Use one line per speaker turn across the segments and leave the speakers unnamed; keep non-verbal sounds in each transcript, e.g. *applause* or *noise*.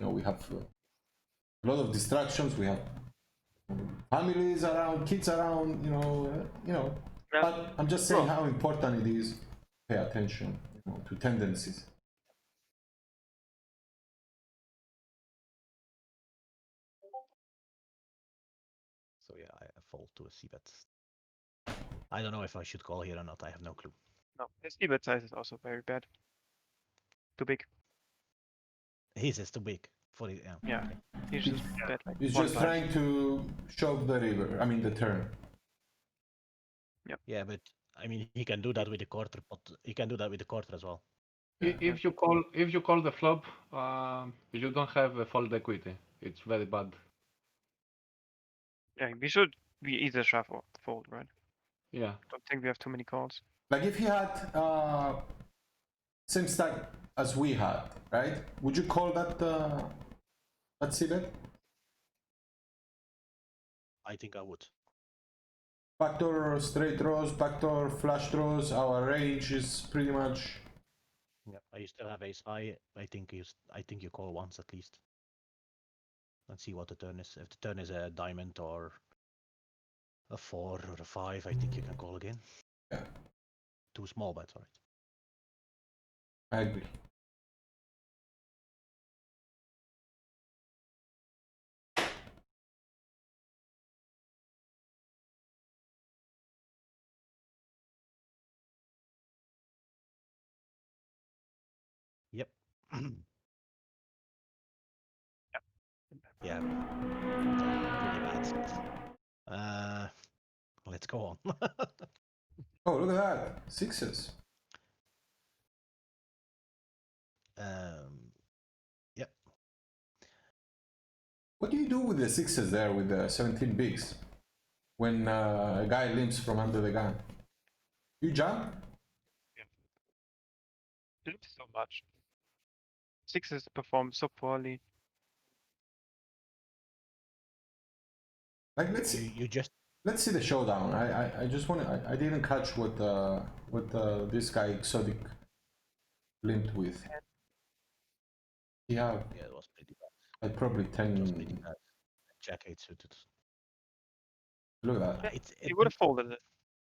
we have uh, a lot of distractions. We have families around, kids around. You know, uh, you know.
Yeah.
But I'm just saying how important it is. to Pay attention you know, to tendencies.
So yeah, I I fold to a C bet. I don't know if I should call here or not. I have no clue.
No, his EBIT size is also very bad. Too big.
His is too big for it. Yeah.
Yeah. He's just bad. Like
It's
one
just
by.
trying to shove the river. I mean the turn.
Yeah, but I mean, he can do that with the quarter, but he can do that with the quarter as well.
I- If you call if you call the flop, um, you don't have a fold equity. It's very bad.
Yeah, we should be either shove or fold, right?
Yeah.
Don't think we have too many calls.
Like if he had uh, same stack as we had, right? Would you call that uh, that seabed?
I think I would.
Backdoor straight draws, backdoor flush draws. Our range is pretty much.
Yeah. I still have ace high. I think you. s- I think you call once at least. Let's see what the turn is. If the turn is a diamond or a four or a five, I think you can call again.
Yeah.
Two small bets, right?
I agree.
Yep. *clears throat* Yeah. Pretty bad. Uh, let's go on. *laughs*
Oh, look at that sixes.
um,
What do you do with the sixes there with the 17 bigs when uh, a guy limps from under the gun? You jump?
Didn't so much. Sixes perform so poorly.
Like let's
you,
see,
you just
let's see the showdown. I I, I just want to. I, I didn't catch what uh, what uh, this guy exotic limped with. Yeah,
yeah, it was pretty bad.
like probably
It was pretty
ten.
bad. uh, Jack eight suited.
Look at that.
Uh, It's
He
it-
would have folded it.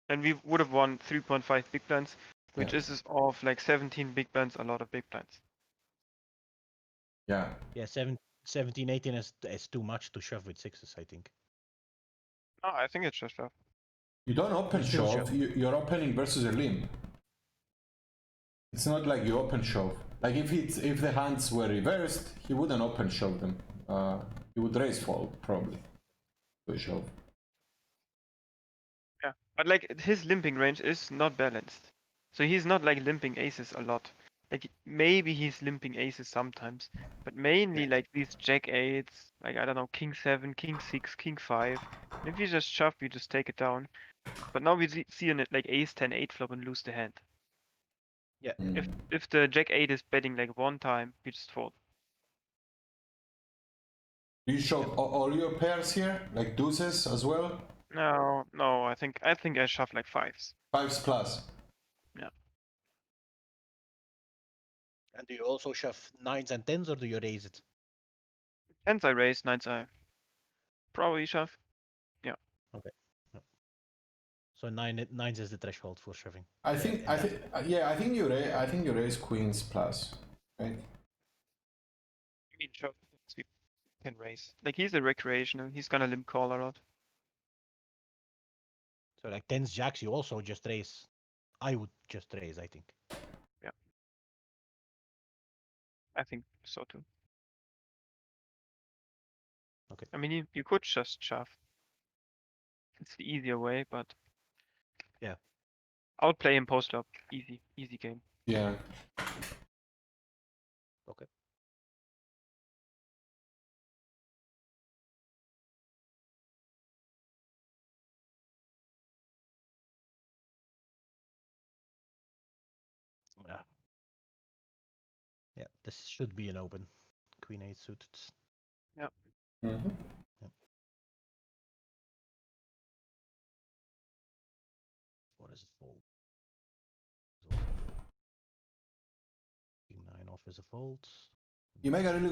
And we would have won 3.5 big blinds, which
Yeah.
is is of like 17 big blinds, a lot of big blinds.
Yeah,
yeah, seven, 17, 18 is is too much to shove with sixes. I think.
No, I think it's just shove.
you don't open
You still
shove.
shove.
You, you're opening versus a limb. It's not like you open shove. Like if it's if the hands were reversed, he wouldn't open shove them. Uh, he would raise fold probably. To a shove.
Yeah. But like his limping range is not balanced. So he's not like limping aces a lot. Like maybe he's limping aces sometimes, but mainly like these jack eights, like I don't know, king seven, king six, king five. If you just shove, you just take it down. But now we see- see an like ace 10 8 flop and lose the hand. If if the jack eight is betting like one time, we just fold.
Do you shove a- all your pairs here, like deuces as well?
No, no, I think I think I shove like fives.
Fives plus.
And do you also shove nines and tens, or do you raise it?
Tens I raise, nines I probably shove.
So nine nines is the threshold for shoving.
I
Yeah,
think I
yeah.
think yeah I think you ra- I think you raise queens plus, right?
I mean, shove tens we can raise. Like he's a recreational. He's gonna limp call a lot.
So like tens, jacks, you also just raise. I would just raise. I think.
I think so too.
Okay.
I mean, you, you could just shove. It's the easier way, but
Yeah.
outplay him post up. Easy, easy game.
Yeah.
Okay. Yeah. Yeah, this should be an open. Queen eight suited.
Mm-hmm.
What is it fold? It's all- King nine off is a fold.
You make a really